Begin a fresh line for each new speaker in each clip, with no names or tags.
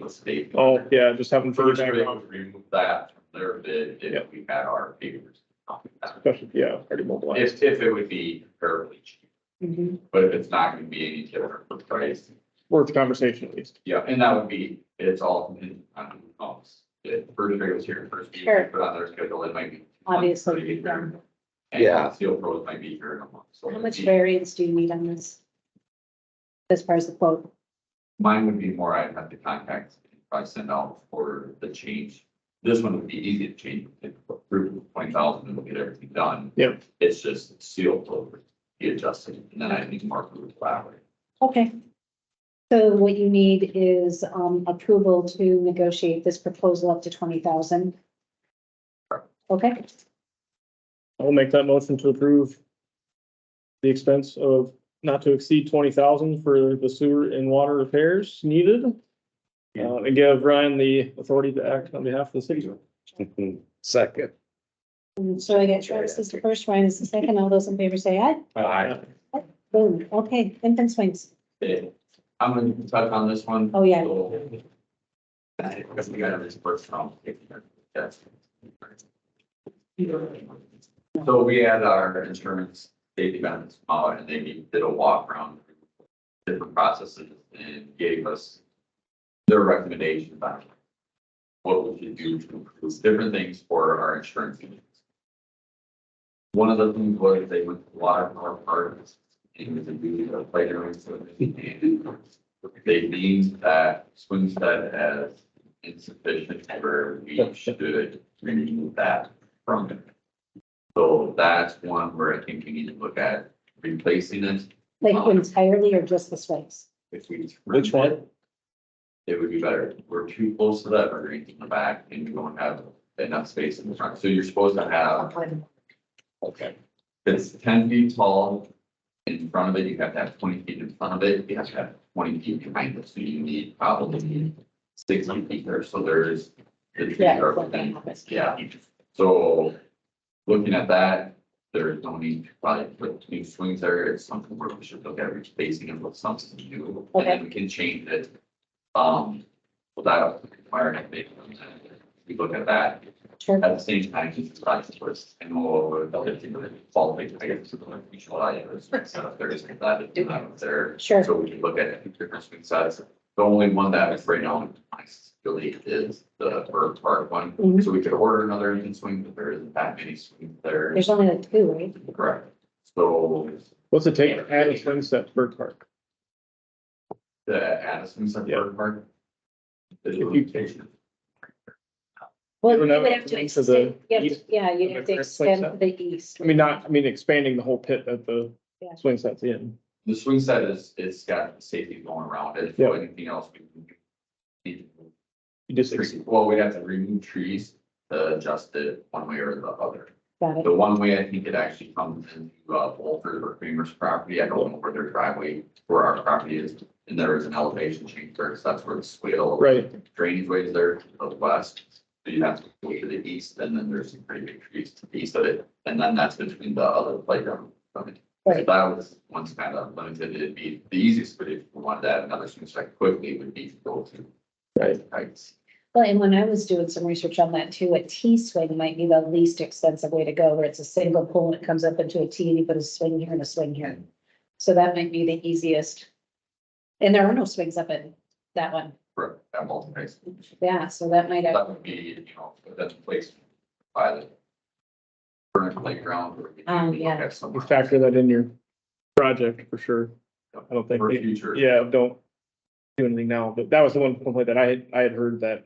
the state.
Oh, yeah, just having further
First, we
background,
would remove that from their bid
Yeah.
if we had our papers.
especially, yeah, already mobilized.
If, if it would be terribly cheap,
Mm-hmm.
but if it's not gonna be any different for price,
Worth the conversation at least.
yeah, and that would be, it's all, in- on who else. If first grade was here first, week,
Sure.
put on their schedule, it might be.
Obviously, yeah.
Yeah.
And Steel Pros might be here in a month. so
How
it'd
much
be-
variance do you need on this? As far as the quote,
Mine would be more, I'd have to contact, if I send out for the change. This one would be easy to change, through twenty thousand, and we'll get everything done.
Yep.
It's just seal over, be adjusted, and then I need to mark it with flower.
okay. So what you need is um approval to negotiate this proposal up to twenty thousand. Okay,
I'll make that motion to approve the expense of not to exceed twenty thousand for the sewer and water repairs needed. Uh, and give Ryan the authority to act on behalf of the city.
Second.
and so I get Travis is the first, Ryan is the second, all those in favor say aye. Boom, okay, infant swings,
Okay, I'm gonna touch on this one.
Oh, yeah.
So- Because we got this first round. Yes. So we had our insurance safety benefits come out and they did a walk around different processes and gave us their recommendations on what we should do to improve different things for our insurance. companies. One of the things was they went to a lot of our partners and was a duty of playground service. and They deemed that swing set as insufficient where we should remove that from it. So that's one where I think we need to look at replacing it
like entirely or just the swings?
if we.
Which one?
remove It it would be better. We're too close to that, we're in the back and we don't have enough space in the front. So you're supposed to have
Okay.
It's ten feet tall. In front of it, you have to have twenty feet in front of it, you have to have twenty feet behind it, so you need probably sixty feet there, so there's. The trees
Yeah,
are
it's like that
within,
happens.
yeah, so looking at that, there is no need to probably put new swings there, it's something where we should look at replacing it with something new. And then we can change it, um, without requiring a big, we look at that,
Sure,
at the same time, he's decided to us and more ability to follow the guidance of the mutual ideas. So if there is that, that was there.
Sure.
So we can look at different swing sets. The only one that is right now, I really is the bird park one.
Mhm.
So we could order another engine swing, but there isn't that many swings there.
there's only like two, right?
Correct. So
What's it take to add a swing set to Bird Park?
the Addison Center
Yeah.
bird park. The
you-
limitation.
Well,
You
you
don't have
would have to
room to the
extend, you have to-
east?
yeah, you have
Okay,
to
that's like
extend to the east.
I mean, not, I mean, expanding the whole pit that the
Yeah.
swing set's in.
The swing set is, it's got safety going around it.
Yeah.
So anything else we need to
You just, ex-
Tree- Well, we'd have to remove trees to adjust it one way or the other.
Got it,
The one way I think it actually comes into uh, Bolter or Creamer's property, I don't know where their driveway, where our property is. And there is an elevation change there, so that's where the swale.
right,
Drainage ways there to the west. So you have to go to the east and then there's some pretty big trees to the east of it. And then that's between the other playground. from it. So
right,
That was once kind of limited. It'd be the easiest, but if we wanted to add another swing strike quickly, would be to go to
right.
heights.
well, and when I was doing some research on that too, a T swing might be the least expensive way to go, where it's a single pole and it comes up into a T and you put a swing here and a swing here. So that might be the easiest. And there are no swings up in that one,
for that multi-phase.
yeah, so that might have,
That would be, you know, that's placed by the current playground. or we
Oh,
could
yeah.
have some-
You factor that in your project for sure. I don't think,
For
they-
future.
yeah, don't do anything now, but that was the one complaint that I had, I had heard that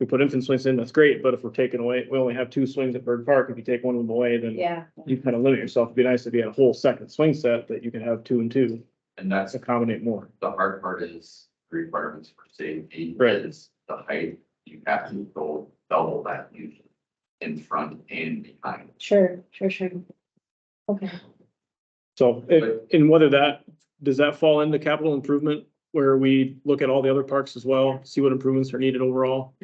we put infant swings in, that's great, but if we're taking away, we only have two swings at Bird Park, if you take one of them away, then
yeah,
you kind of limit yourself. It'd be nice if you had a whole second swing set that you could have two and two,
And that's,
to accommodate more.
the hard part is requirements for safety.
Right.
Is the height, you have to go double that usually in front and behind.
sure, sure, sure. Okay,
So, and, and whether that, does that fall into capital improvement where we look at all the other parks as well, see what improvements are needed overall?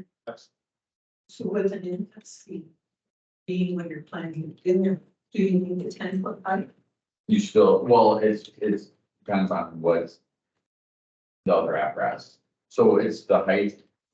So with an emphasis being when you're planning dinner, do you need a ten foot height?
You still, well, it's, it's depends on what the other apparatus. So it's the height